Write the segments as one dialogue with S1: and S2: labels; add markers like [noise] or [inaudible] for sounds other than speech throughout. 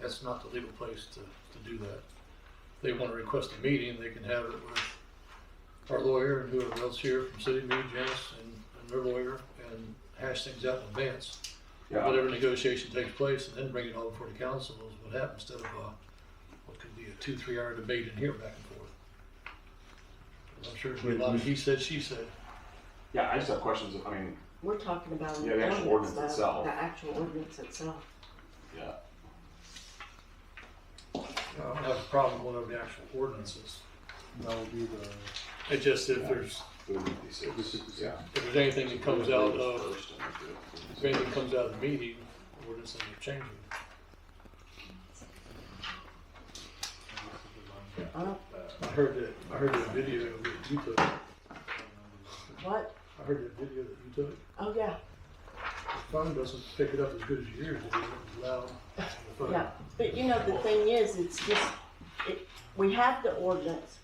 S1: that's not the legal place to, to do that. If they want to request a meeting, they can have it with our lawyer and whoever else here from city, me, Janice, and, and their lawyer, and hash things out in advance.
S2: Yeah,
S1: Whatever negotiation takes place, and then bring it all before the council is what happens, instead of, uh, what could be a two, three hour debate in here back and forth. 'Cause I'm sure there's a lot of he said, she said.
S2: yeah, I just have questions, I mean,
S3: We're talking about.
S2: Yeah, the actual ordinance
S3: though,
S2: itself.
S3: The actual ordinance itself.
S2: yeah,
S1: I don't have a problem with whatever the actual ordinance is.
S4: That would be the,
S1: It just, if there's,
S2: the fifty-six,
S4: The 56.
S2: yeah.
S1: if there's anything that comes out of
S2: First and the
S1: If anything comes out of the meeting, we're just gonna change it.
S3: Uh,
S1: I heard that, I heard that video that you took, I
S3: what?
S1: heard that video that you took.
S3: Oh, yeah,
S1: The phone doesn't pick it up as good as yours, it was loud. on the phone.
S3: yeah. But you know, the thing is, it's just, it, we have the ordinance.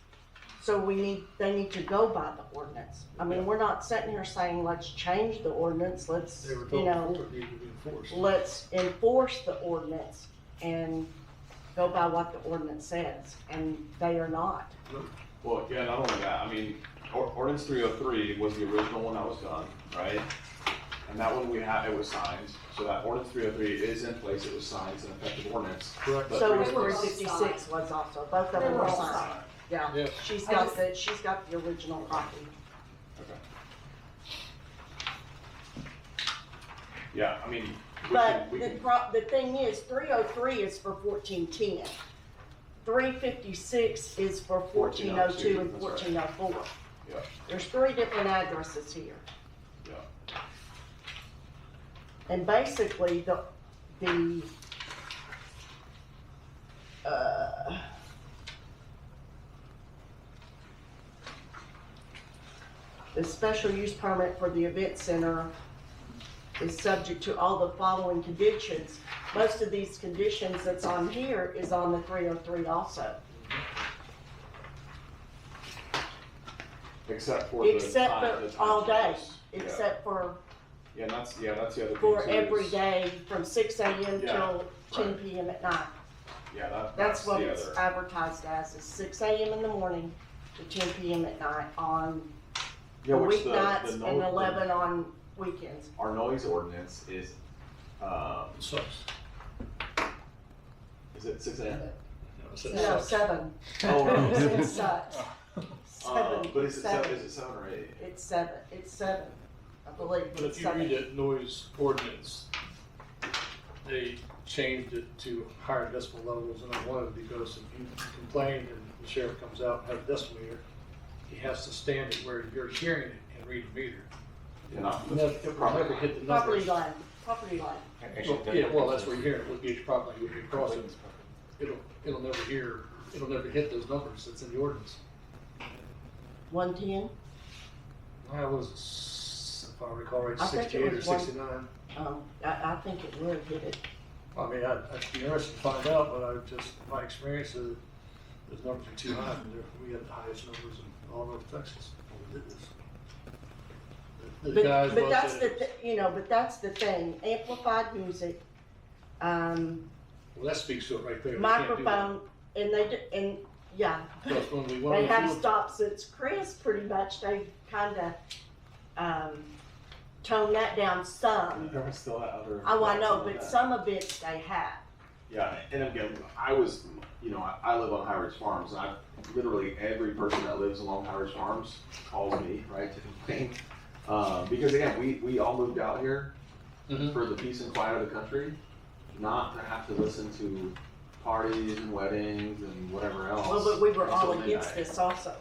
S3: So we need, they need to go by the ordinance. I mean, we're not sitting here saying, let's change the ordinance, let's,
S1: They were
S3: you
S1: told
S3: know,
S1: before it needed to be enforced.
S3: let's enforce the ordinance and go by what the ordinance says, and they are not.
S2: Well, yeah, not only that, I mean, or- ordinance three oh three was the original one that was done, right? And that one we had, it was signed, so that ordinance three oh three is in place, it was signed, it's an effective ordinance.
S1: Correct.
S2: But
S3: So
S2: three-
S3: was three fifty-six was also, both of them were signed, yeah.
S1: Yeah,
S3: She's
S5: I
S3: got
S5: just-
S3: the, she's got the original copy.
S2: Okay. Yeah, I mean, we
S3: But
S2: can,
S3: the
S2: we can,
S3: pro, the thing is, three oh three is for fourteen ten. Three fifty-six is for fourteen oh
S2: 1402,
S3: two and
S2: that's
S3: fourteen oh four.
S2: Yeah.
S3: There's three different addresses here.
S2: yeah,
S3: And basically, the, the, uh, the special use permit for the event center is subject to all the following conditions. Most of these conditions that's on here is on the three oh three also,
S2: except for the
S3: except
S2: time- the
S3: for
S2: time
S3: all day,
S2: changes. Yeah.
S3: except for,
S2: Yeah, and that's, yeah, that's the other thing
S3: for
S2: too,
S3: every
S2: is-
S3: day from six AM
S2: Yeah,
S3: till ten
S2: right.
S3: PM at night.
S2: Yeah, that,
S3: That's
S2: that's
S3: what
S2: the
S3: it's
S2: other,
S3: advertised as, is six AM in the morning to ten PM at night on
S2: yeah, which the, the
S3: weeknights and
S2: no- the-
S3: eleven on weekends.
S2: Our noise ordinance is, um,
S1: it sucks.
S2: is it six AM?
S1: You know, it says
S3: No,
S1: sucks.
S3: seven.
S2: [laughs] Oh, no.
S3: It's such.
S2: Uh,
S3: Seven,
S2: but is it seven,
S3: seven.
S2: is it seven or eight?
S3: It's seven, it's seven, I believe.
S1: But if
S3: it's
S1: you read
S3: seven.
S1: that noise ordinance, they changed it to higher decibel levels and I wanted because if you complain and the sheriff comes out and has a decibel meter, he has to stand it where you're hearing it and read the meter.
S2: Yeah, not-
S1: And that- It will never hit the
S3: Property
S1: numbers.
S3: line, property line.
S1: Well, Yeah, well, that's where you're hearing it, would be properly, would be crossing, it'll, it'll never hear, it'll never hit those numbers that's in the ordinance.
S3: One ten,
S1: I was, s- if I recall right,
S3: I think it
S1: sixty-eight or
S3: was one-
S1: sixty-nine.
S3: um, I, I think it would hit it.
S1: I mean, I'd, I'd be interested to find out, but I just, my experience is those numbers are too high, and they're- we had the highest numbers in all of Texas when we did this. The- The
S3: But,
S1: guys
S3: but
S1: was
S3: that's the,
S1: that,
S3: thi- you know, but that's the thing, amplified music, um,
S1: well, that speaks to it right there. We can't do that.
S3: microphone, and they, di- and, yeah,
S1: Because when we went on
S3: They
S1: the
S3: have
S1: field,
S3: stopped since Chris, pretty much, they kinda, um, toned that down some.
S2: There was still that other.
S3: Oh, I know,
S2: that-
S3: but some of it they have.
S2: Yeah, and again, I was, you know, I, I live on High Ridge Farms, and I, literally every person that lives along High Ridge Farms calls me, right, to complain. Uh, because again, we, we all moved out here
S1: Mhm.
S2: for the peace and quiet of the country, not to have to listen to parties and weddings and whatever else.
S3: Well, but we were all
S2: until
S3: against
S2: midnight.
S3: this also.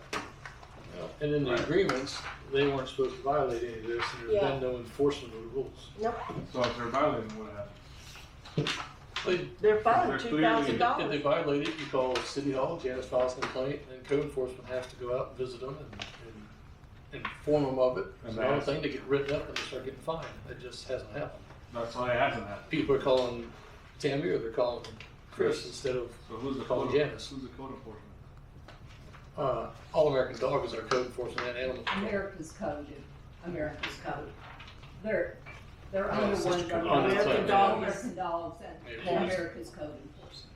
S1: and in the
S2: Right.
S1: agreements, they weren't supposed to violate any of this, and there's
S3: Yeah.
S1: been no enforcement of the rules.
S4: so if they're violating what happened,
S1: They-
S3: They're fined
S4: They're
S3: two
S4: clearly-
S3: thousand
S1: If they
S3: dollars.
S1: violate it, you call City Hall, Janice files a complaint, and code enforcement has to go out and visit them and, and inform them of it. It's
S4: And
S1: not a
S4: that's-
S1: thing to get written up and they start getting fined. It just hasn't happened.
S4: that's why it hasn't happened.
S1: People are calling Tammy or they're calling Chris instead of,
S4: So who's the
S1: Call
S4: code,
S1: Janice.
S4: who's the code enforcement?
S1: uh, All American Dog is our code enforcement and animal. control.
S5: America's code, America's code. They're, they're
S1: Oh,
S5: under
S1: it's
S5: one,
S1: such a good-
S5: umbrella.
S3: American
S5: American
S3: dogs.
S5: dogs and
S1: Yeah,
S5: and
S1: please.
S5: America's code enforcement.